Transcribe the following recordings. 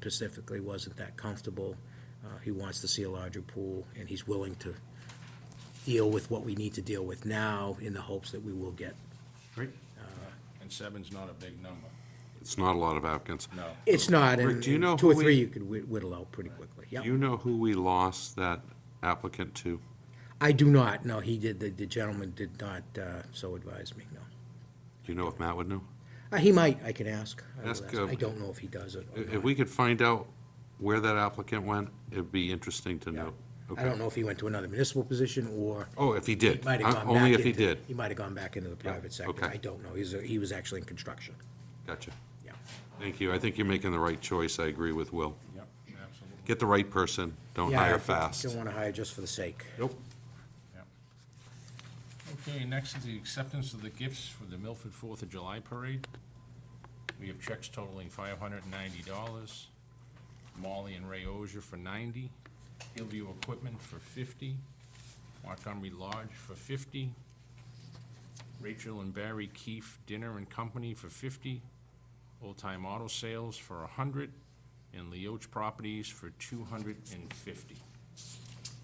specifically wasn't that comfortable. Uh, He wants to see a larger pool, and he's willing to deal with what we need to deal with now in the hopes that we will get. Great. And seven's not a big number, It's not a lot of applicants. no. It's not, and Rick, do you know and two or who three we- you could whit- whittle out pretty quickly. Do Yeah, you know who we lost that applicant to? I do not, no, he did, the- the gentleman did not uh, so advise me, no. Do you know if Matt would know? Uh, He might, I can ask. I will Ask, ask. uh, I don't know if he does it or If not. if we could find out where that applicant went, it'd be interesting to Yeah. know. I Okay. don't know if he went to another municipal position or Oh, if he did. might have Uh, gone back. Only if he into- did. He might have gone back into the private sector. okay. I don't know. He's, a- he was actually in construction. Gotcha. Yeah. Thank you. I think you're making the right choice. I agree with Will. Yep, absolutely, Get the right person. Don't Yeah, I hire think you fast. Don't want to hire just for the sake. Nope. yep. Okay, next is the acceptance of the gifts for the Milford Fourth of July Parade. We have checks totaling five hundred and ninety dollars. Molly and Ray Ozier for ninety, Hillview Equipment for fifty, Montgomery Lodge for fifty, Rachel and Barry Keefe Dinner and Company for fifty, Old Time Auto Sales for a hundred, and Leoch Properties for two hundred and fifty.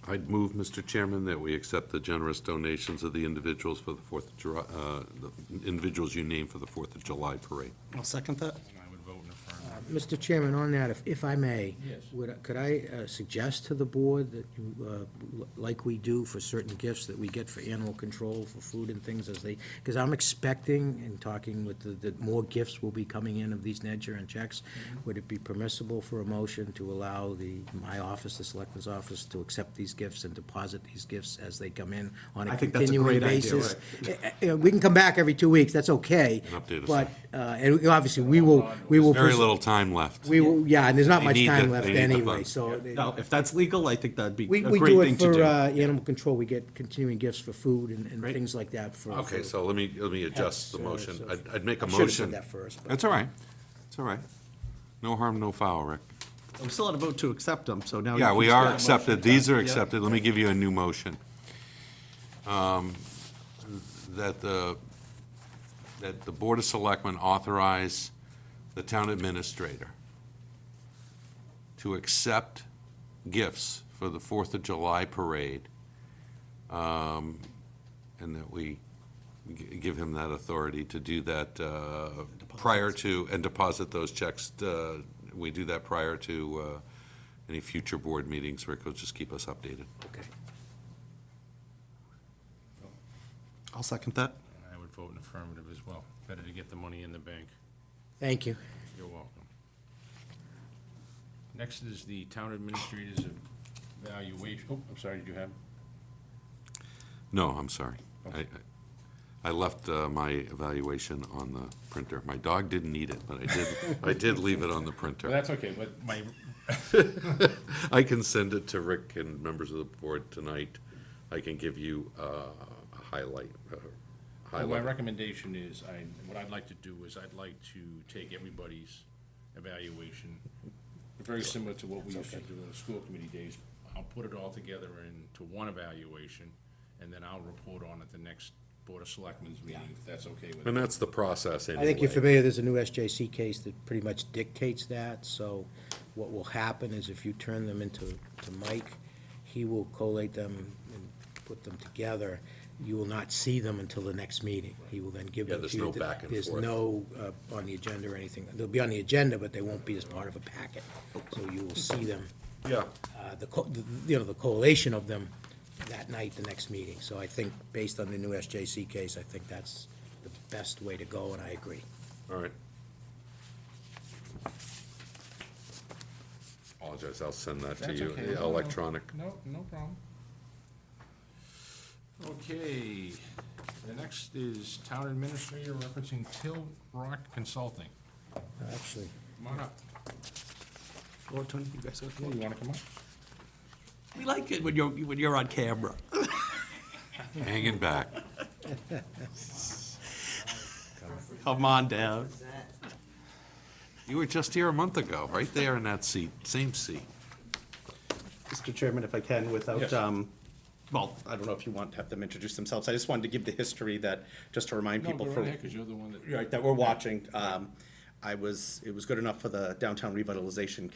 I'd move, Mr. Chairman, that we accept the generous donations of the individuals for the Fourth of July, uh, the individuals you named for the Fourth of July parade. I'll second that. And I would vote in affirmative. Mr. Chairman, on that, if, if I may. Yes. Would, I- could I uh, suggest to the board that you, uh, l- like we do for certain gifts that we get for animal control, for food and things as they, because I'm expecting and talking with the, that more gifts will be coming in of these nature and checks. Mm-hmm. Would it be permissible for a motion to allow the, my office, the selectman's office, to accept these gifts and deposit these gifts as they come in on I a think that's a continuing great idea, basis? Uh, uh, We can come back every two weeks, that's okay. And update us. But, uh, and obviously, we will, we will. Very pers- little time left. we, will- yeah, and there's not They much need time the- left they need the anyway, funds. so. they- No, if that's legal, I think that'd be We, a we great do it thing to for, do. uh, animal control, we get continuing gifts for food and, and things like that for. Okay, for- so let me, let me adjust the Yes, uh, motion. so- I'd, I'd make a I should've said motion. that first, but- That's all right. It's all right. No harm, no foul, Rick. I'm still on a vote to accept them, so Oh, now. you Yeah, can we just- are Yeah, accepted, motion these are done. Yeah. accepted, let me give you a new motion. Um, That the, that the Board of Selectmen authorize the town administrator to accept gifts for the Fourth of July parade, um, and that we gi- give him that authority to do that uh, prior to, and deposit those checks. uh, We do that prior to uh, any future board meetings, Rick will just keep us updated. Okay. I'll second that. And I would vote in affirmative as well. Better to get the money in the bank. Thank you. You're welcome. Next is the town administrator's evaluation. Oh, I'm sorry, did you have? No, I'm sorry. I- I I left uh, my evaluation on the printer. My dog didn't eat it, but I did, I did leave it on the Well, printer. that's okay, but my, I can send it to Rick and members of the board tonight. I can give you uh, a highlight, uh, my highlight. recommendation is, I, what I'd like to do is I'd like to take everybody's evaluation, very similar to what we used to do in the school committee days. I'll put it all together into one evaluation, and then I'll report on it the next Board of Selectmen's meeting, if that's okay with And you. that's the process anyway. I think you're familiar, there's a new SJC case that pretty much dictates that, so what will happen is if you turn them into, to Mike, he will collate them and put them together. You will not see them until the next meeting. He will then give Yeah, them to there's you. no back and There's forth. no, uh, on the agenda or anything. They'll be on the agenda, but they won't be as part of a packet. So you will see them, Yeah, uh, the, co- the- you know, the collation of them that night, the next meeting. So I think, based on the new SJC case, I think that's the best way to go, and I agree. all right. Apologize, I'll send that to That's you, okay. electronic. No, no problem. Okay, the next is Town Administrator referencing Till Rock Consulting. Actually, Come on up. Or Tony, you guys Hey, okay? You wanna come up? We like it when you're, when you're on camera. Hanging back. Come on down. You were just here a month ago, right there in that seat, same seat. Mr. Chairman, if I can, without, Yes. um, well, I don't know if you want to have them introduce themselves. I just wanted to give the history that, just to remind No, people go for. right ahead, cause you're the one that. Right, that we're watching. Um, I was, it was good enough for the Downtown Revitalization